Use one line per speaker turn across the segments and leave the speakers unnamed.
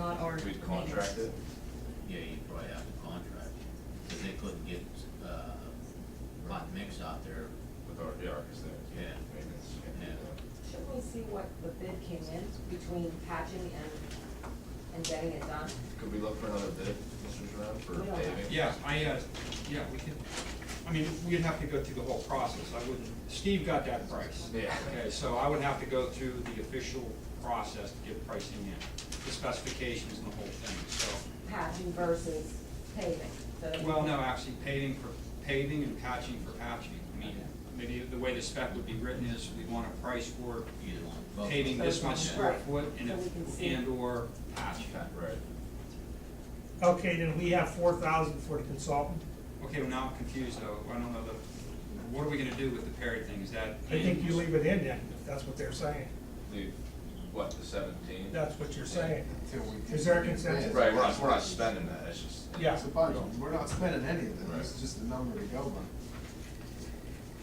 out or?
We'd contract it.
Yeah, you'd probably have to contract, because they couldn't get, uh, hot mix out there.
With our, yeah, our consent.
Yeah.
Maintenance.
Yeah.
Shouldn't we see what the bid came in between patching and, and getting it done?
Could we look for another bid, Mr. Jerome, for
We don't have-
paving?
Yeah, I, uh, yeah, we could, I mean, we'd have to go through the whole process, I wouldn't, Steve got that price.
Yeah.
Okay, so I would have to go through the official process to get pricing in, the specifications and the whole thing, so.
Patching versus paving, so that we
Well,
can-
no, actually paving for paving and patching for patching. I mean, maybe the way the spec would be written is we want a price for
Either one. Both.
paving this much square
Right.
foot and,
So we can
if-
see.
and or patching.
Right.
Okay, then we have four thousand for the consultant.
Okay, well, now I'm confused though, I don't know the, what are we gonna do with the Perry thing, is that?
I think you
in?
leave it in then, if that's what they're saying.
The, what, the seventeen?
That's what you're saying.
Till we-
Is there a consensus?
Right, we're not, we're not spending that, it's just.
Yeah.
It's a budget, we're not spending any of it,
Right.
it's just a number to go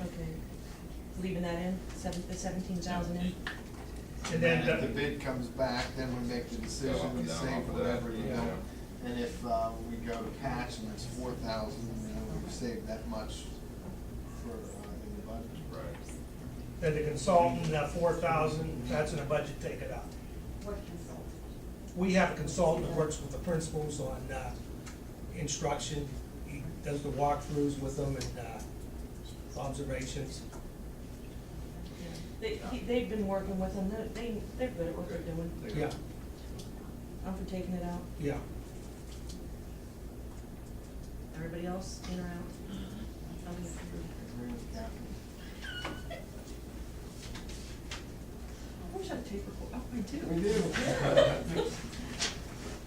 Okay, leaving that in, seven, the seventeen thousand in?
by.
And then,
if the
the-
bid comes back, then we make the
Go up
decision,
and
we
down off
save
of that,
whatever, you
yeah.
know. And if, uh, we go to patch and it's four thousand, you know, we've saved that much for, uh, in the budget.
Right.
then the consultant, that four thousand, that's in the budget, take it out.
What consultant?
We have a consultant that works with the principals on, uh, instruction. He does the walkthroughs with them and, uh, observations.
They, he- they've been working with them, They're- they, they're good at what they're doing.
Yeah,
I'm for taking it out.
yeah.
Everybody else in or out?
Mhm.
Okay.
Agree with Catherine.
I wish I had tape recorder. Oh, I do.
We do.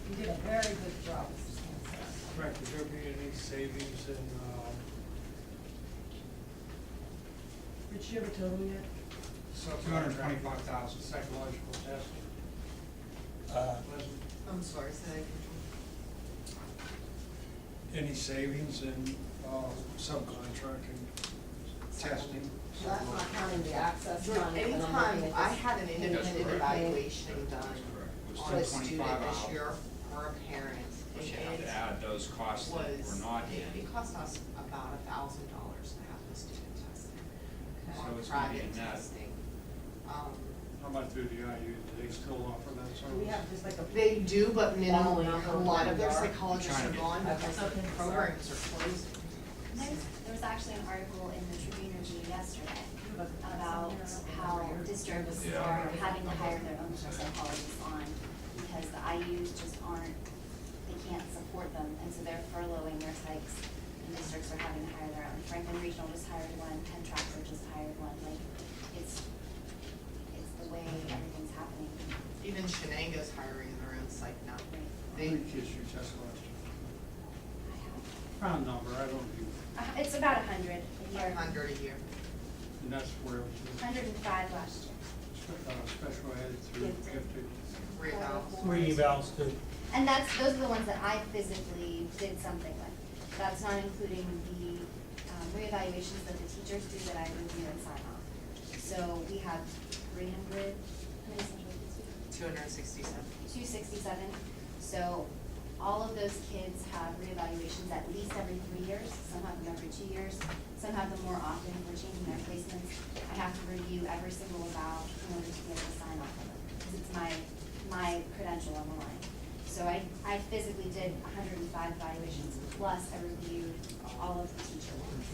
You did a very good job, Mr. Chancellor.
Correct, is there be any savings in, uh,
Did you ever tell them yet?
Two hundred and twenty-five thousand.
psychological testing?
Uh,
Wasn't
I'm sorry, say that
Any savings in, uh, subcontracting testing?
Well, That's not counting the access
again.
time, and I'm looking
Anytime
at
I
this
had an
That's
independent
correct.
evaluation done
Which
on a
is
student
25
this
hours.
year or a parent,
We should have
and
to
it
add those costs that
was,
were not
it-
in.
it cost us about a thousand dollars to have the student tested.
So
On
it's gonna be in
private
that.
testing. Um,
How about through the IU, do they still offer that service?
We have just like a
They
big,
do, but minimal,
Only
a lot of their
number.
psychologists are
Trying to get-
gone because
Okay.
the programs are closed.
There's, there was actually an article in the Tribune Review yesterday about how districts
Yeah.
are having to hire their own psychologists on because the IUs just aren't, they can't support them, and so they're furloughing their psychs, and districts are having to hire their own. Franklin Regional just hired one, Penn Trafford just hired one, like, it's, it's the way everything's happening.
Even Shenango's hiring their own psych now.
How
They,
many kids you test last year? Round number, I don't do,
Uh, It's about a hundred a year,
five hundred a year.
and that's where it was,
hundred and five last year.
uh, special ed through gifted.
Three thousand.
Three evals to,
And that's, those are the ones that I physically did something with. That's not including the um, reevaluations that the teachers do that I review and sign off. So we have three hundred, how many central kids we
Two hundred and sixty-seven.
have? Two sixty-seven. So all of those kids have reevaluations at least every three years, some have them every two years, some have them more often, if we're changing their placements. I have to review every single eval in order to be able to sign off on them, because it's my, my credential on the line. So I, I physically did hundred and five evaluations, plus I reviewed all of the teacher ones.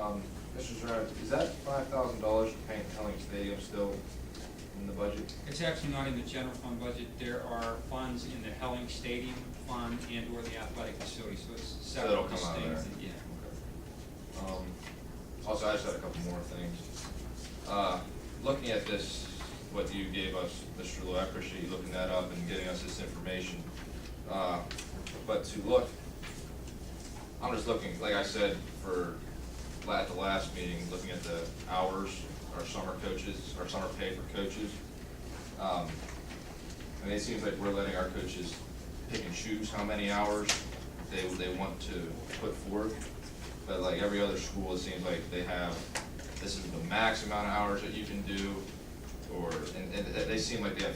Um, Mr. Jerome, is that five thousand dollars for paint Helling Stadium still in the budget?
It's actually not in the general fund budget, there are funds in the Helling Stadium Fund and or the athletic facility, so it's
So that'll
several
come out of
things,
there.
yeah.
Okay. Um, also, I just had a couple more things. Uh, looking at this, what you gave us, Mr. Lou, I appreciate you looking that up and getting us this information. Uh, but to look, I'm just looking, like I said, for, la- at the last meeting, looking at the hours, our summer coaches, our summer pay for coaches. Um, I mean, it seems like we're letting our coaches pick and choose how many hours they, they want to put forth. But like every other school, it seems like they have, this is the max amount of hours that you can do, or, and, and they seem like they have